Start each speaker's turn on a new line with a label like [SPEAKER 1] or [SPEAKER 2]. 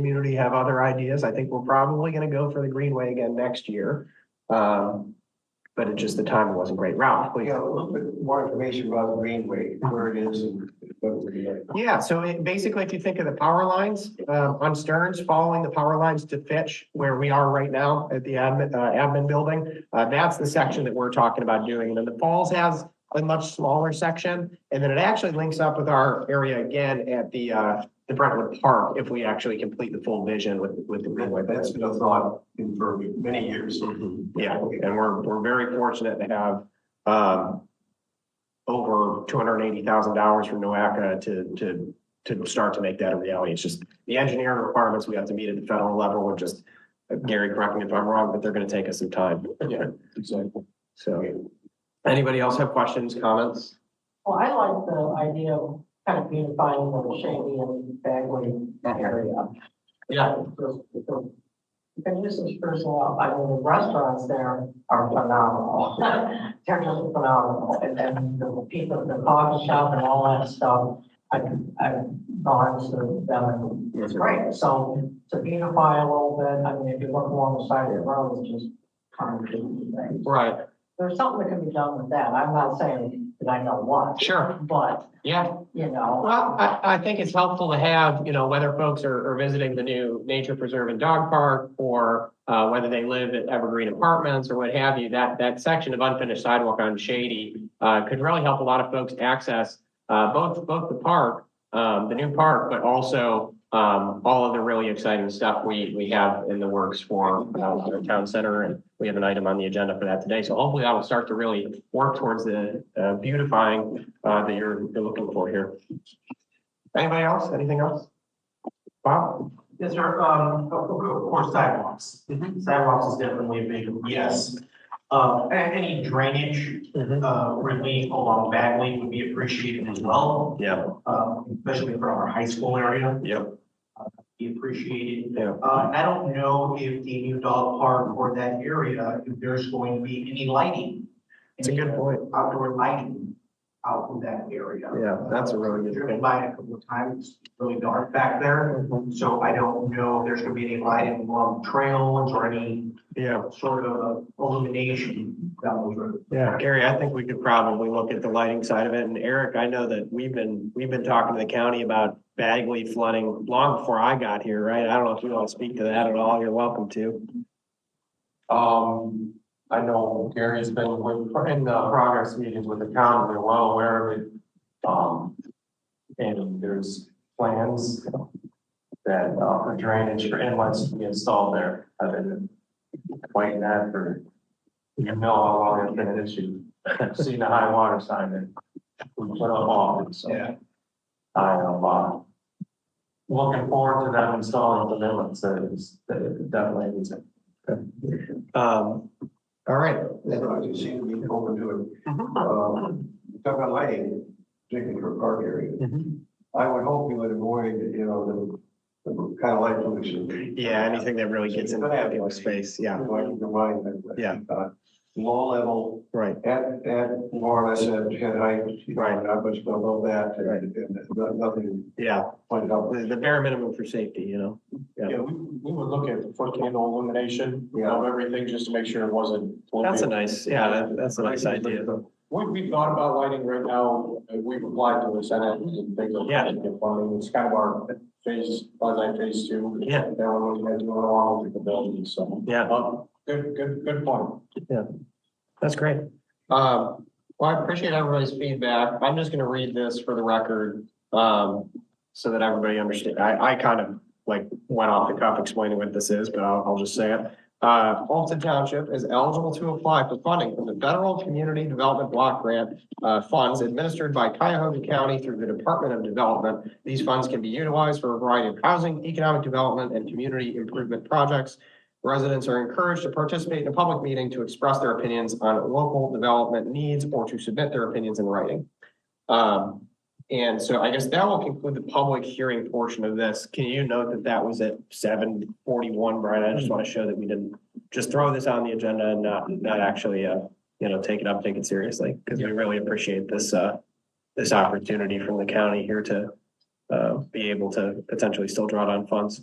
[SPEAKER 1] community have other ideas. I think we're probably gonna go for the Greenway again next year. Um, but it just, the timing wasn't great. Ralph,
[SPEAKER 2] We
[SPEAKER 1] please.
[SPEAKER 2] got a little bit more information about Greenway, where it is and what we're doing.
[SPEAKER 1] Yeah, so it, basically, if you think of the power lines, uh, on Stearns, following the power lines to Fitch, where we are right now at the admin, uh, admin building, uh, that's the section that we're talking about doing. And then the Falls has a much smaller section. And then it actually links up with our area again at the, uh, the Brentwood Park, if we actually complete the full vision with, with the Greenway.
[SPEAKER 2] That's been a thought in for many years.
[SPEAKER 1] Yeah, and we're, we're very fortunate to have, um, over two hundred and eighty thousand dollars from NOACA to, to, to start to make that a reality. It's just the engineering requirements we have to meet at the federal level are just, uh, Gary, correct me if I'm wrong, but they're gonna take us some time.
[SPEAKER 2] Yeah, exactly.
[SPEAKER 1] So, anybody else have questions, comments?
[SPEAKER 3] Well, I like the idea of kind of unifying the Shandy and Bagley area.
[SPEAKER 1] Yeah.
[SPEAKER 3] You can use this personal, out. I mean, the restaurants there are phenomenal. They're just phenomenal. And then the people, the coffee shop and all that stuff, I, I've gone to them and it's great. So to beautify a little bit, I mean, if you look along the side of the road, it's just concrete. and things.
[SPEAKER 1] Right,
[SPEAKER 3] There's something that can be done with that. I'm not saying that I know what.
[SPEAKER 1] Sure.
[SPEAKER 3] But
[SPEAKER 1] yeah,
[SPEAKER 3] you know,
[SPEAKER 1] Well, I, I think it's helpful to have, you know, whether folks are, are visiting the new nature preserve and dog park or uh, whether they live at Evergreen Apartments or what have you, that, that section of unfinished sidewalk on Shady uh, could really help a lot of folks access uh, both, both the park, um, the new park, but also um, all of the really exciting stuff we, we have in the works for uh, the town center. And we have an item on the agenda for that today. So hopefully that will start to really work towards the uh, beautifying uh, that you're, you're looking for here. Anybody else? Anything else? Bob?
[SPEAKER 4] Yes, sir, um, of of course sidewalks.
[SPEAKER 1] Mm-hmm.
[SPEAKER 4] Sidewalks is definitely a big, yes. Uh, a- any drainage,
[SPEAKER 1] Mm-hmm.
[SPEAKER 4] uh, relief along Bagley would be appreciated as well,
[SPEAKER 1] Yeah,
[SPEAKER 4] uh, especially for our high school area, Uh,
[SPEAKER 1] yep,
[SPEAKER 4] be appreciated.
[SPEAKER 1] yeah.
[SPEAKER 4] Uh, and I don't know if the new dog park or that area, if there's going to be any lighting.
[SPEAKER 1] It's a good point.
[SPEAKER 4] Outdoor lighting out in that area.
[SPEAKER 1] Yeah, that's a really good
[SPEAKER 4] Driven
[SPEAKER 1] point.
[SPEAKER 4] by it a couple of times, really dark back there. So I don't know if there's gonna be any lighting along trails or any
[SPEAKER 1] Yeah,
[SPEAKER 4] sort of illumination down those roads.
[SPEAKER 1] yeah. Gary, I think we could probably look at the lighting side of it. And Eric, I know that we've been, we've been talking to the county about Bagley flooding long before I got here, right? I don't know if you want to speak to that at all. You're welcome to.
[SPEAKER 5] Um, I know Gary's been with, in the progress meetings with the county, they're well aware of it. Um, and there's plans that, uh, for drainage for inlets to be installed there. I've been waiting that for, you know, how long it's been an issue. Seen the high water sign that we put up on, so.
[SPEAKER 4] Yeah.
[SPEAKER 5] I am, uh, looking forward to them installing the inlets, that is, that definitely needs it.
[SPEAKER 1] Um, all right.
[SPEAKER 2] That's why you seem to be open to it.
[SPEAKER 1] Mhm.
[SPEAKER 2] Um, you Talk about lighting, particularly for park area.
[SPEAKER 1] Mm-hmm.
[SPEAKER 2] I would hope you would avoid, you know, the, the kind of light pollution.
[SPEAKER 1] Yeah, anything that really gets in the space. Yeah,
[SPEAKER 2] Like your mind, that-
[SPEAKER 1] Yeah.
[SPEAKER 2] uh, Low level,
[SPEAKER 1] right.
[SPEAKER 2] at, at more or less at head height, you know,
[SPEAKER 1] Right.
[SPEAKER 2] not much below that, and, and no- nothing
[SPEAKER 1] Yeah,
[SPEAKER 2] pointed out.
[SPEAKER 1] the, the bare minimum for safety, you know?
[SPEAKER 6] Yeah, we, we would look at the foot candle illumination
[SPEAKER 2] Yeah.
[SPEAKER 6] of everything just to make sure it wasn't.
[SPEAKER 1] That's a nice, yeah, that- that's a nice idea.
[SPEAKER 6] We, we thought about lighting right now, uh, we've applied to the Senate and things like
[SPEAKER 1] Yeah.
[SPEAKER 6] that. Funding, it's kind of our phase, quasi phase two.
[SPEAKER 1] Yeah.
[SPEAKER 6] That we're looking at doing along with the building, so.
[SPEAKER 1] Yeah.
[SPEAKER 6] Um, Good, good, good point.
[SPEAKER 1] That's great. Um, well, I appreciate everybody's feedback. I'm just gonna read this for the record, um, so that everybody understands. I, I kind of like went off the cuff explaining what this is, but I'll, I'll just say it. Uh, Fulton Township is eligible to apply for funding from the Federal Community Development Block Grant uh, funds administered by Cuyahoga County through the Department of Development. These funds can be utilized for a variety of housing, economic development, and community improvement projects. Residents are encouraged to participate in a public meeting to express their opinions on local development needs or to submit their opinions in writing. Um, and so I guess that will conclude the public hearing portion of this. Can you note that that was at seven forty-one, Brian? I just want to show that we didn't just throw this on the agenda and not, not actually, uh, you know, take it up, take it seriously, because we really appreciate this, uh, this opportunity from the county here to, uh, be able to potentially still draw down funds.